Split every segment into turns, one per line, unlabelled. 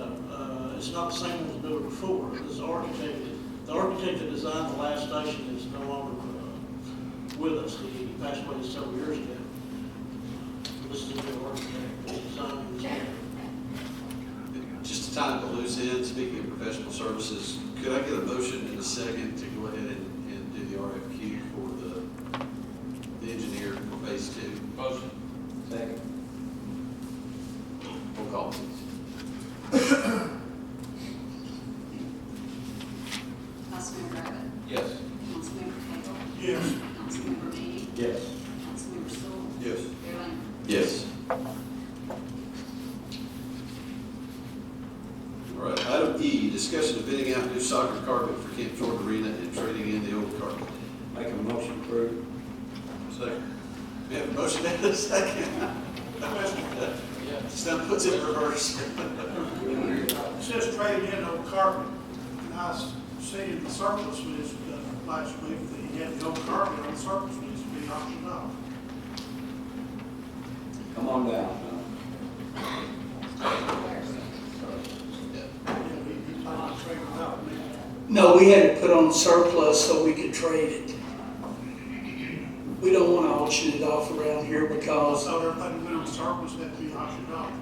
uh, it's not the same one was built before, this architect, the architect that designed the last station is no longer uh, with us, he passed away several years ago. This is the new architect, that designed this.
Just to tie up the loose end, speaking of professional services, could I get a motion in a second to go ahead and, and do the RFQ for the, the engineer for phase two?
Motion. Second.
Roll call, please.
Councilmember Rabbit?
Yes.
Councilmember Cagle?
Yes.
Councilmember Meany?
Yes.
Councilmember Stoll?
Yes.
Mayor Lambert?
Yes. All right, item E, discussion of bidding out new soccer carpet for Camp Jordan Arena and trading in the old carpet.
Make a motion approved.
Second. We have a motion and a second. Just now puts it in reverse.
It says trade in old carpet, and I seen the surplus list uh, last week, that he had the old carpet on the surplus list being auctioned off.
Come on down.
And he, he planned to trade it out, man.
No, we had it put on surplus so we could trade it. We don't want to auction it off around here because,
So everything went on surplus, had to be auctioned off.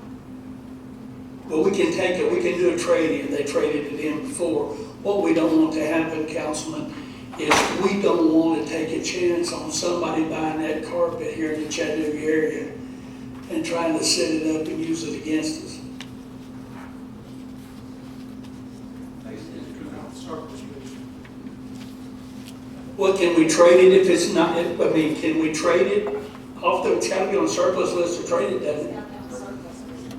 well, we can take it, we can do a trade-in, they traded it in before. What we don't want to happen, Councilman, is we don't want to take a chance on somebody buying that carpet here in the Chattanooga area and trying to set it up and use it against us.
On the surplus list.
Well, can we trade it if it's not, I mean, can we trade it off the, it's got to be on surplus list to trade it, doesn't it?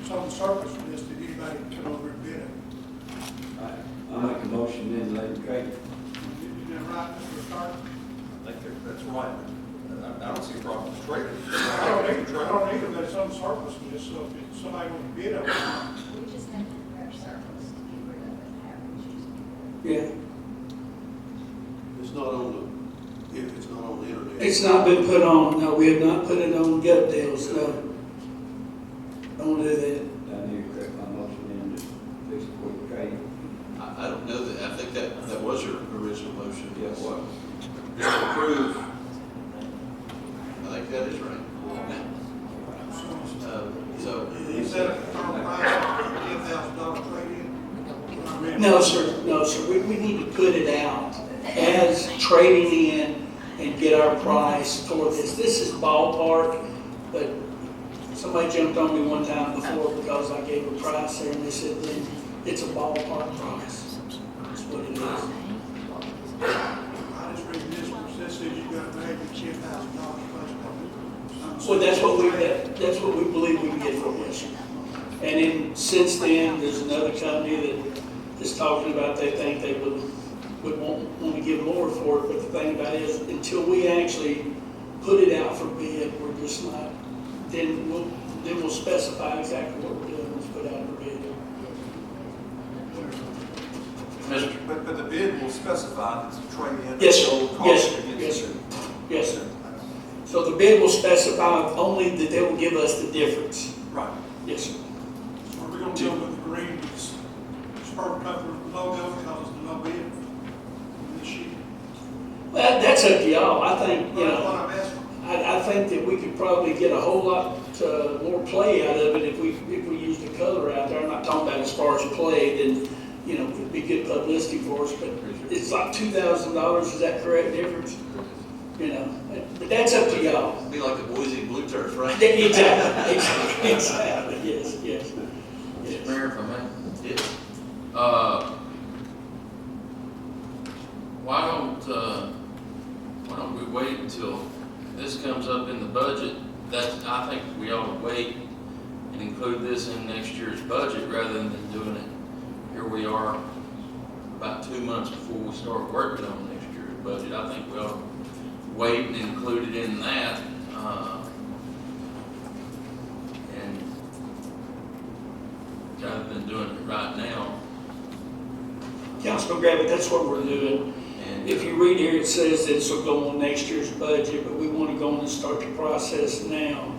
It's on the surplus list, that anybody can come over and bid it.
I make a motion then, let him trade.
Isn't that right, Mr. Carter?
I think that- that's right. I I don't see a problem with trading.
I don't either, I don't either, but it's on the surplus list, so if somebody wants to bid on it,
We just have to grab circles to get rid of it, however you choose.
Yeah.
It's not on the, if it's not on the internet.
It's not been put on, no, we have not put it on gut deals, no. Don't do that.
I need to correct my motion then, just fix it for the trade.
I, I don't know that, I think that, that was your original motion.
Yes.
What? Just to approve. I think that is right. Um, So,
He said a firm price, ten thousand dollar trade-in.
No, sir, no, sir, we, we need to put it out as trading in and get our price for this. This is ballpark, but somebody jumped on me one time before because I gave a price there and they said, "Lynn, it's a ballpark price. That's what it is.
I just read this one, it says you got to pay the ten thousand dollars plus.
So that's what we, that- that's what we believe we can get for this. And then, since then, there's another company that is talking about, they think they would, would want, want to give more for it, but the thing about it is, until we actually put it out for bid, we're just not, then we'll, then we'll specify exactly what we're doing, let's put out for bid.
But, but the bid will specify that it's a trade-in.
Yes, sir.
the old cost
Yes, sir.
against
Yes, sir.
it.
Yes, sir. So the bid will specify only that they will give us the difference.
Right.
Yes, sir.
Are we gonna go with the green, this spur cover logo, because it's the low bid? This year.
Well, that's up to y'all, I think, you
But
know.
what I'm asking,
I, I think that we could probably get a whole lot uh, more play out of it if we, if we used the color out there. I'm not talking about as far as play, then, you know, it'd be good publicity for us, but it's like two thousand dollars, is that correct difference? You know, but that's up to y'all.
be like the Boise Blue Turf, right?
Yeah, Exactly, exactly, exactly, yes, yes. yes.
Mayor, if I may,
Yes.
uh, why don't, uh, why don't we wait until this comes up in the budget? That's, I think we ought to wait and include this in next year's budget rather than doing it. Here we are, about two months before we start working on next year's budget. I think we ought to wait and include it in that, uh, and rather than doing it right now.
Councilman Gravitt, that's what we're doing.
And
If you read here, it says this will go on next year's budget, but we want to go on and start the process now.